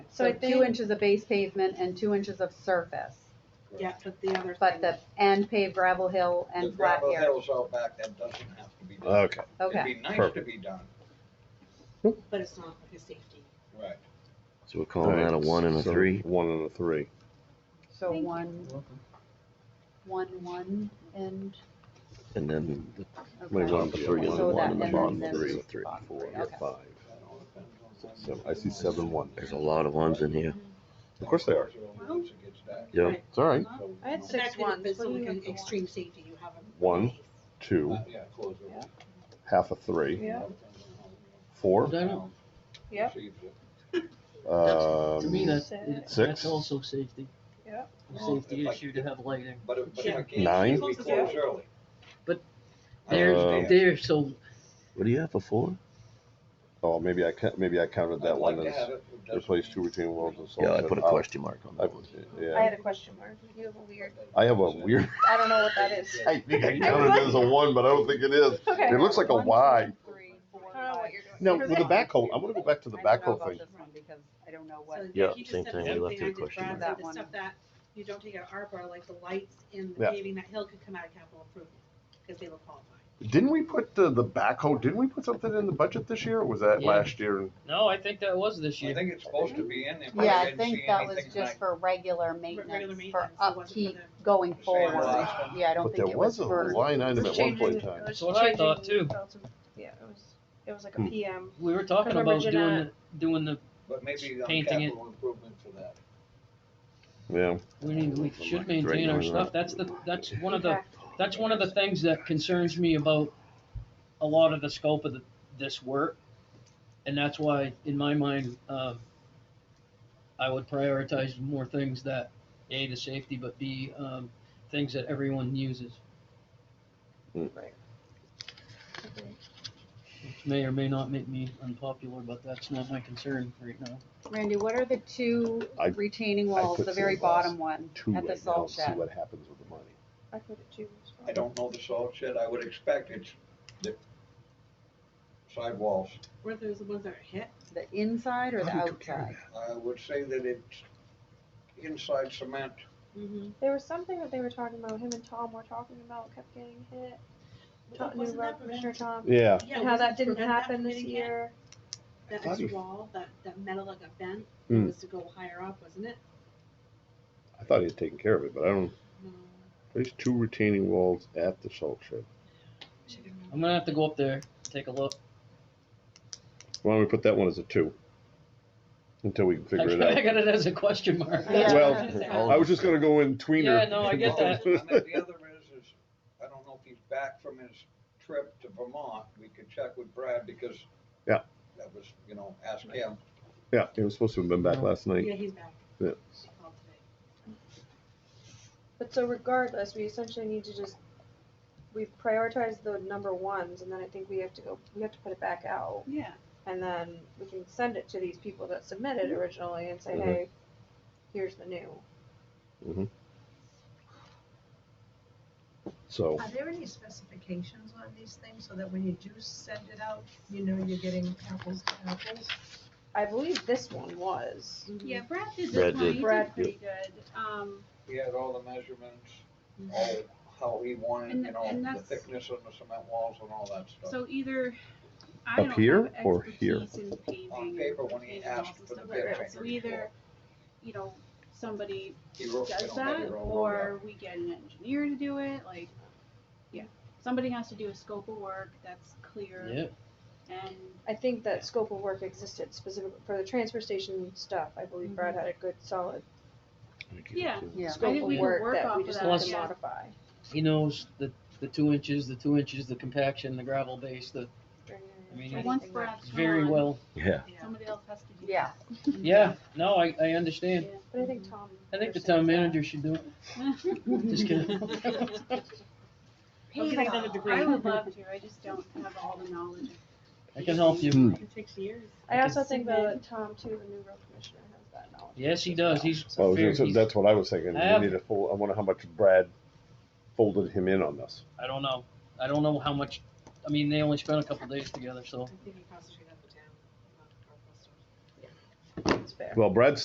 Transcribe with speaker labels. Speaker 1: So I
Speaker 2: two
Speaker 1: think,
Speaker 2: inches of base pavement and two inches of surface,
Speaker 1: yeah,
Speaker 3: Correct.
Speaker 1: but the other
Speaker 2: but
Speaker 1: thing,
Speaker 2: the, and paved gravel hill
Speaker 3: The
Speaker 2: and flat
Speaker 3: gravel
Speaker 2: area.
Speaker 3: hills out back, that doesn't have to be done.
Speaker 4: Okay.
Speaker 2: Okay,
Speaker 3: It'd be nice to
Speaker 4: perfect.
Speaker 3: be done,
Speaker 1: but it's not like a safety.
Speaker 3: right.
Speaker 5: So we're calling
Speaker 4: Alright,
Speaker 5: that a one and a
Speaker 4: so
Speaker 5: three.
Speaker 4: One and a three.
Speaker 2: so one, one, one, and,
Speaker 5: And then the
Speaker 4: We
Speaker 2: okay.
Speaker 4: want
Speaker 5: top
Speaker 4: the one,
Speaker 5: three and the
Speaker 2: So
Speaker 5: one
Speaker 2: that-
Speaker 5: and the
Speaker 2: and then
Speaker 5: bottom
Speaker 2: there's
Speaker 5: three.
Speaker 2: the
Speaker 4: three,
Speaker 2: bottom
Speaker 4: four,
Speaker 2: three, okay.
Speaker 4: five,
Speaker 3: That all depends on how
Speaker 4: six, seven.
Speaker 3: you
Speaker 4: I see
Speaker 3: do it.
Speaker 4: seven one.
Speaker 5: there's a lot of ones in here.
Speaker 4: Of course they are.
Speaker 3: Those the ones that gets that.
Speaker 5: Yeah.
Speaker 1: Right.
Speaker 4: It's all right.
Speaker 3: So,
Speaker 6: I had
Speaker 3: you
Speaker 1: So that
Speaker 6: Six
Speaker 1: could-
Speaker 6: ones,
Speaker 1: It's
Speaker 6: what do
Speaker 1: like
Speaker 6: you
Speaker 1: an
Speaker 6: want?
Speaker 1: extreme safety, you have a.
Speaker 4: One,
Speaker 3: know,
Speaker 4: two,
Speaker 3: uh, Yeah, close it.
Speaker 6: Yeah.
Speaker 4: half a three,
Speaker 6: Yeah.
Speaker 3: Depends on how you
Speaker 4: four,
Speaker 7: That,
Speaker 6: Yep.
Speaker 3: perceive it.
Speaker 4: um,
Speaker 7: to me, that's,
Speaker 4: Six.
Speaker 7: that's also safety, a
Speaker 3: Well,
Speaker 7: safety
Speaker 3: if I-
Speaker 7: issue to have lighting.
Speaker 3: But if, but if I can't.
Speaker 4: Nine. Um,
Speaker 3: We close early.
Speaker 7: But
Speaker 3: I
Speaker 7: They're,
Speaker 3: understand.
Speaker 7: they're so,
Speaker 5: What do you have for four?
Speaker 4: oh, maybe I ca- maybe I counted
Speaker 3: I'd
Speaker 4: that
Speaker 3: like
Speaker 4: one
Speaker 3: to
Speaker 4: as
Speaker 3: have it, it doesn't
Speaker 4: replace
Speaker 3: mean-
Speaker 4: two retaining walls and so.
Speaker 5: Yeah, I put a
Speaker 4: I'll-
Speaker 5: question mark on
Speaker 4: I,
Speaker 5: that one.
Speaker 6: I
Speaker 4: yeah,
Speaker 6: had a question mark. You have a weird,
Speaker 4: I have a weird,
Speaker 6: I don't know what that is.
Speaker 4: I think I
Speaker 6: I was
Speaker 4: counted it as a one, but I don't think it is.
Speaker 6: Okay.
Speaker 4: It looks like a
Speaker 2: One, two,
Speaker 4: Y.
Speaker 2: three, four,
Speaker 6: I don't know what you're doing.
Speaker 4: No, with the backhoe, I'm gonna go back to the
Speaker 2: I don't know
Speaker 4: backhoe
Speaker 2: about
Speaker 4: thing.
Speaker 2: this one because I don't know
Speaker 1: So
Speaker 2: what,
Speaker 1: yeah,
Speaker 5: Yeah,
Speaker 1: he just
Speaker 5: same
Speaker 1: said
Speaker 5: thing,
Speaker 1: the
Speaker 5: we
Speaker 1: same
Speaker 5: left
Speaker 1: thing
Speaker 5: it
Speaker 1: I
Speaker 5: a
Speaker 1: did,
Speaker 5: question
Speaker 1: Brad
Speaker 2: mark.
Speaker 1: said, the stuff that you don't take out of ARPA, like the lights in the
Speaker 4: Yeah.
Speaker 1: paving, that hill could come out of capital improvement, because they were qualified.
Speaker 4: Didn't we put the, the backhoe, didn't we put something in the budget this year? Or was that
Speaker 7: Yeah.
Speaker 4: last year?
Speaker 7: no, I think that was this
Speaker 3: I
Speaker 7: year.
Speaker 3: think it's supposed to be in there. but
Speaker 2: yeah,
Speaker 3: didn't
Speaker 2: I think
Speaker 3: see
Speaker 2: that was
Speaker 3: anything
Speaker 2: just
Speaker 3: like-
Speaker 2: for regular
Speaker 1: Regular
Speaker 2: maintenance, for
Speaker 1: maintenance, it wasn't for
Speaker 2: upkeep
Speaker 1: the-
Speaker 2: going
Speaker 3: Same
Speaker 2: forward.
Speaker 3: last.
Speaker 2: Yeah, I don't
Speaker 4: But there
Speaker 2: think it was
Speaker 4: was a
Speaker 2: for,
Speaker 4: line item at one point in time.
Speaker 6: Changing- it was
Speaker 7: That's what I
Speaker 6: changing
Speaker 7: thought, too.
Speaker 6: belts and- Yeah, it was, it was like
Speaker 4: Hmm.
Speaker 6: a PM.
Speaker 7: We were talking
Speaker 6: Remember
Speaker 7: about doing,
Speaker 6: Jeanette?
Speaker 7: the- doing the,
Speaker 3: But maybe on
Speaker 7: Painting it.
Speaker 3: capital improvement for that.
Speaker 4: Yeah,
Speaker 7: we need, we should maintain our stuff, that's the, that's one of the,
Speaker 6: Okay.
Speaker 7: that's one of the things that concerns me about a lot of the scope of the, this work. And that's why, in my mind, um, I would prioritize more things that, A, the safety, but B, um, things that everyone uses. Which may or may not make me unpopular, but that's not my concern right now.
Speaker 2: Randy, what are the two
Speaker 4: I-
Speaker 2: retaining walls,
Speaker 4: put
Speaker 2: the very
Speaker 4: some walls
Speaker 2: bottom one
Speaker 4: two
Speaker 2: at the
Speaker 4: right now,
Speaker 2: salt
Speaker 4: see
Speaker 2: shed?
Speaker 4: what happens with the money.
Speaker 6: I put it too. as well.
Speaker 3: I don't know the salt shed, I would expect it's the sidewalls.
Speaker 1: Were those the ones that are hit?
Speaker 2: The inside or the outside?
Speaker 3: I would say that it's inside cement.
Speaker 1: Mm-hmm.
Speaker 6: There was something that they were talking about, him and Tom were talking about, kept getting hit. Tom, new
Speaker 1: Wasn't
Speaker 6: road
Speaker 1: that
Speaker 6: commissioner Tom,
Speaker 4: Yeah,
Speaker 6: and how that didn't happen this
Speaker 1: year.
Speaker 6: year.
Speaker 1: That
Speaker 4: Bloody-
Speaker 1: extra wall, that, that metal that got bent, it
Speaker 4: Hmm.
Speaker 1: was to go higher up, wasn't it?
Speaker 4: I thought he had taken care of it, but I don't,
Speaker 1: No.
Speaker 4: there's two retaining walls at the salt shed.
Speaker 7: I'm gonna have to go up there, take a look.
Speaker 4: Why don't we put that one as a two? Until we can figure it
Speaker 7: I
Speaker 4: out.
Speaker 7: got it as a question mark.
Speaker 2: Yeah.
Speaker 4: Well, I was just gonna go in tweener.
Speaker 7: Yeah, no, I get that.
Speaker 3: And then the other is, is, I don't know if he's back from his trip to Vermont, we could check with Brad because.
Speaker 4: Yeah.
Speaker 3: That was, you know, ask him.
Speaker 4: Yeah, he was supposed to have been back last night.
Speaker 1: Yeah, he's back.
Speaker 4: Yeah.
Speaker 1: She called today.
Speaker 6: But so regardless, we essentially need to just, we prioritize the number ones, and then I think we have to go, we have to put it back out.
Speaker 1: Yeah.
Speaker 6: And then we can send it to these people that submitted originally and say,
Speaker 4: Mhm.
Speaker 6: hey, here's the new.
Speaker 4: So,
Speaker 8: Are there any specifications on these things so that when you do send it out, you know you're getting apples to apples?
Speaker 6: I believe this one was.
Speaker 2: Yeah,
Speaker 1: Brad did
Speaker 5: Brad one. did.
Speaker 1: He
Speaker 6: Brad
Speaker 1: pretty good. Um,
Speaker 3: He had all the measurements, all, how he wanted,
Speaker 9: And-
Speaker 3: you know,
Speaker 9: and
Speaker 3: the
Speaker 9: that's-
Speaker 3: thickness of the cement walls and all that stuff.
Speaker 9: So either, I
Speaker 4: Up
Speaker 9: don't
Speaker 4: here
Speaker 9: have
Speaker 4: or here?
Speaker 9: expertise in paving.
Speaker 3: On paper, when he
Speaker 9: retaining
Speaker 3: asked
Speaker 9: walls and
Speaker 3: for the
Speaker 9: stuff like
Speaker 3: bid,
Speaker 9: that.
Speaker 3: I
Speaker 9: So
Speaker 3: heard
Speaker 9: either,
Speaker 3: before.
Speaker 9: you know, somebody
Speaker 3: He wrote- you
Speaker 9: does
Speaker 3: know, had
Speaker 9: that,
Speaker 3: it all wrote
Speaker 9: or we get an engineer to do it, like, yeah. Somebody has to do a scope of work that's
Speaker 7: Yeah,
Speaker 9: clear and,
Speaker 6: I think that scope of work existed specifically for the transfer station stuff. I believe Brad had a good solid
Speaker 9: yeah.
Speaker 2: Yeah.
Speaker 9: Mm-hmm. I
Speaker 6: scope
Speaker 9: think
Speaker 6: of
Speaker 9: we can
Speaker 6: work
Speaker 9: work
Speaker 6: that
Speaker 9: off
Speaker 6: we
Speaker 9: of
Speaker 6: just
Speaker 9: that,
Speaker 6: had to
Speaker 9: yeah.
Speaker 6: modify.
Speaker 7: he knows the, the two inches, the two inches, the compaction, the gravel base, the, I mean,
Speaker 9: But
Speaker 7: Anything
Speaker 9: once Brad's
Speaker 7: very
Speaker 9: gone,
Speaker 7: well.
Speaker 5: Yeah.
Speaker 9: somebody else has to do that.
Speaker 2: Yeah.
Speaker 7: Yeah, no, I, I understand.
Speaker 6: But I think Tom.
Speaker 7: I think the town
Speaker 6: understands that.
Speaker 7: manager should do it. Just kidding.
Speaker 1: I'll get
Speaker 9: Paving,
Speaker 1: another degree.
Speaker 9: I would love to, I just don't have all the knowledge.
Speaker 7: I can help you.
Speaker 1: It takes years.
Speaker 6: I
Speaker 7: Okay.
Speaker 6: also think that Tom too, the new road commissioner, has that knowledge.
Speaker 7: Yes, he does. He's
Speaker 4: well, I was
Speaker 7: fair.
Speaker 4: gonna say-
Speaker 7: He's-
Speaker 4: that's what I was thinking.
Speaker 7: I have-
Speaker 4: We need a full, I wonder how much Brad folded him in on this.
Speaker 7: I don't know. I don't know how much, I mean, they only spent a couple days together, so.
Speaker 1: I think he concentrated on the town, not our customers.
Speaker 6: It's fair.
Speaker 4: Well, Brad's